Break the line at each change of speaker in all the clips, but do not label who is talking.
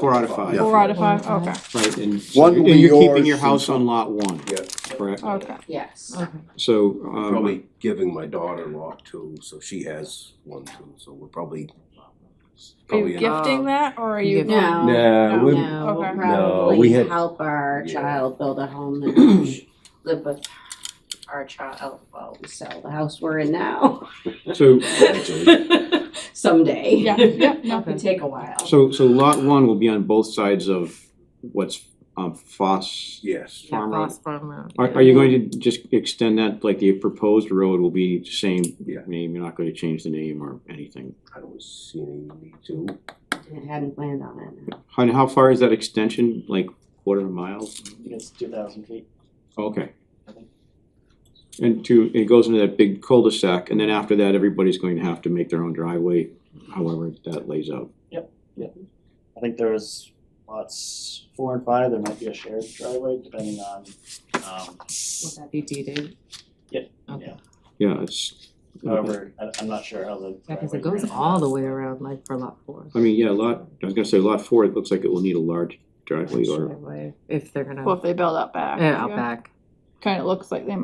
Four out of five.
Four out of five, okay,
Right, and
One will
and
be
you're keeping
yours
your house
and-
on lot one,
Yeah,
correct?
okay.
Yes.
So, um,
probably giving my daughter-in-law two, so she has one too, so we're probably.
Are
probably
you
in-
gifting that, or are you?
No,
Nah,
No.
we,
no, we'll
No,
Okay.
we
probably
had-
help our
Yeah.
child build a home and live with our child while we sell the house we're in now.
so,
Someday.
Yeah, yeah, no.
Could take a while.
so, so lot one will be on both sides of what's, um, Foss.
yes,
Farm Road.
uh,
Are, are you going to just extend that, like the proposed road will be the same
Yeah.
name, you're not gonna change the name or anything?
I don't see any need to.
It hadn't planned on it. no.
And how far is that extension, like quarter of a mile?
It's two thousand feet.
Okay. And to, it goes into that big cul-de-sac, and then after that, everybody's going to have to make their own driveway, however that lays out.
I think there's lots four and five, there might be a shared driveway depending on, um,
Would that be deeded?
Yeah.
Okay,
Yeah, it's, I
however, I, I'm not sure how the.
yeah, cause it
driveway
goes
ran.
all the way around, like for lot four.
mean, yeah, lot, I was gonna say lot four, it looks like it will need a large driveway or,
Driveway, If they're
Well,
gonna,
if they build out back.
yeah, out back.
Kinda looks like they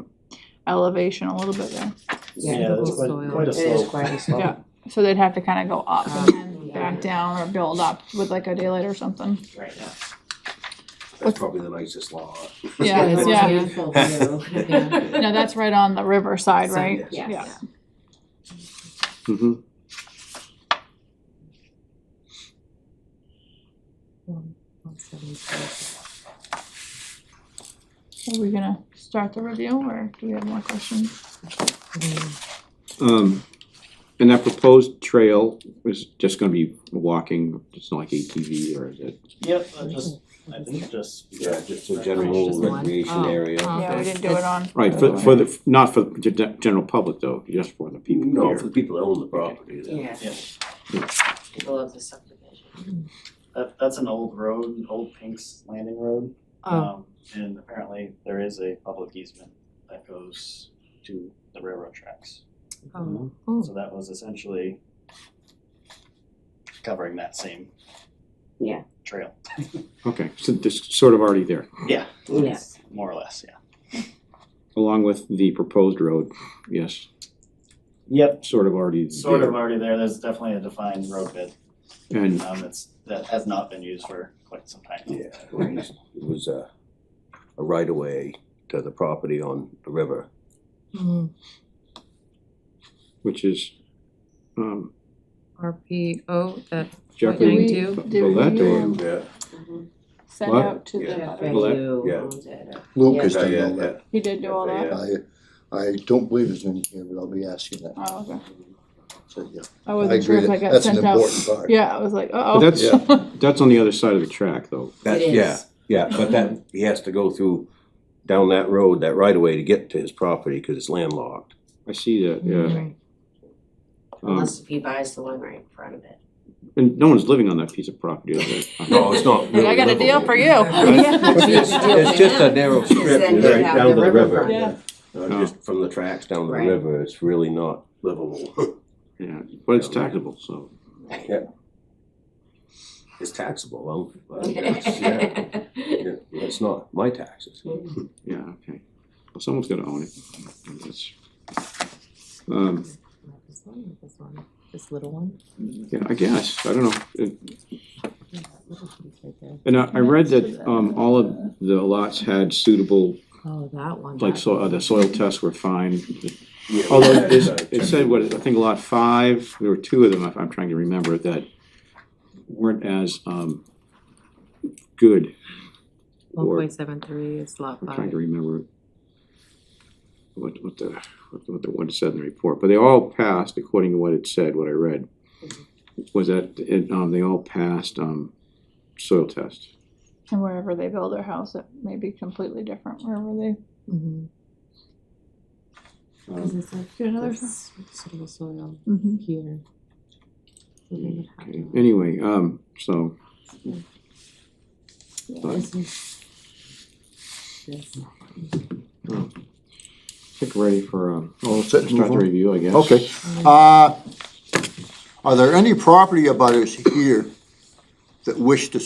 elevation a little bit there,
Yeah,
Yeah,
Typical
it's quite,
soil.
quite a
it
slope.
is quite a slope.
yeah, so they'd have to kinda go up and
Um,
then
yeah.
back down or build up with like a daylight or something.
Right now.
What's-
That's probably the nicest lot.
Yeah,
It's
yeah.
beautiful view.
Yeah.
No, that's right on the riverside,
So,
right?
yes.
Yeah.
hmm
One- one seventy-six.
Are we gonna start the review or do we have more questions?
Mm,
Um, and that proposed trail is just gonna be walking, it's not like ATV or is it?
Yep, I just, I think just.
Yeah, just a
Oh,
general
just one?
recreation
Oh,
area.
oh.
Yeah, we
Okay.
didn't do it on.
Right, for, for the, not for the gen- general public though, just for the people
No,
here.
for the people that own the property. then.
Yeah. People love the subdivision.
That, that's an old road, an old Pink's Landing Road.
Oh,
Um, and apparently there is a public easement that goes to the railroad tracks.
oh, oh.
So that was essentially covering that same
Yeah.
trail,
Okay, so this sort of already there,
Yes.
more or less, yeah.
along with the proposed road, yes,
Yep.
sort of already
Sort of
there.
already there, there's definitely a defined road bed,
And,
um, it's, that has not been used for quite some time.
Yeah, it was- it was a, a right of way to the property on the river.
mm-hmm.
Mm,
which is, um,
RPO, that,
Jeffrey.
Did we-
Bo-
did we,
Bollett or-
um,
Yeah.
Send
What?
out to the
Yeah.
Well,
butters.
that-
Mm-hmm. You
yeah.
owned it.
Lucas
Yeah,
done
yeah,
all that.
He did do all that?
Yeah.
I, I don't believe there's any here, but I'll be asking that,
Oh, okay.
so, yeah.
I
I
wasn't sure
agree,
if I
that-
got
that's an
sent out.
important part.
Yeah, I was like,
But
uh-oh.
that's, that's on the other side of the track though,
That,
It
yeah,
is.
yeah, but that, he has to go through, down that road, that right of way to get to his property, cause it's landlocked.
I see that, yeah.
mm,
Um,
Unless if he buys the one right in front of it.
and no one's living on that piece of property, is there?
No, it's not
Like, I
really
got a deal
livable.
for you.
It's-
Yeah.
It's it's just a narrow strip
Then
right
you'd have
down to
the
the
riverfront.
river,
Yeah,
Uh, just from the tracks down to the
Right.
river, it's really not livable.
Yeah, but it's taxable, so.
It's taxable, um, but it's- yeah, yeah, it's not my taxes.
Yeah, okay. Well, someone's gonna own it. I guess. Um,
not this one, not this one, this little one.
yeah, I guess, I don't know. It-
Yeah, that little piece right there.
And I, I read that, um, all of the lots had suitable,
Oh, that one.
like,
that
so, uh,
one.
the soil tests were fine.
Yeah,
Although
but
this,
that's, uh,
it said, what, I think lot five, there were two of them, if I'm trying to remember, that weren't as, um, good.
One
Or,
point seven three is lot
I'm trying
five.
to remember what, what the, what the- what the one said in the report, but they all passed according to what it said, what I read. Was that, it, um, they all passed, um, soil test.
and wherever they build their house, it may be completely different wherever they
Mhm. Cause
Um,
it's like
do another.
this sort of soil
Mm-hmm.
here. So they would have
okay.
to-
Anyway, um, so,
Yeah, this is- this.
I think we're ready for, um,
All set, move
start the
on.
review, I guess.
Okay, uh, are there any property abutters here that wish to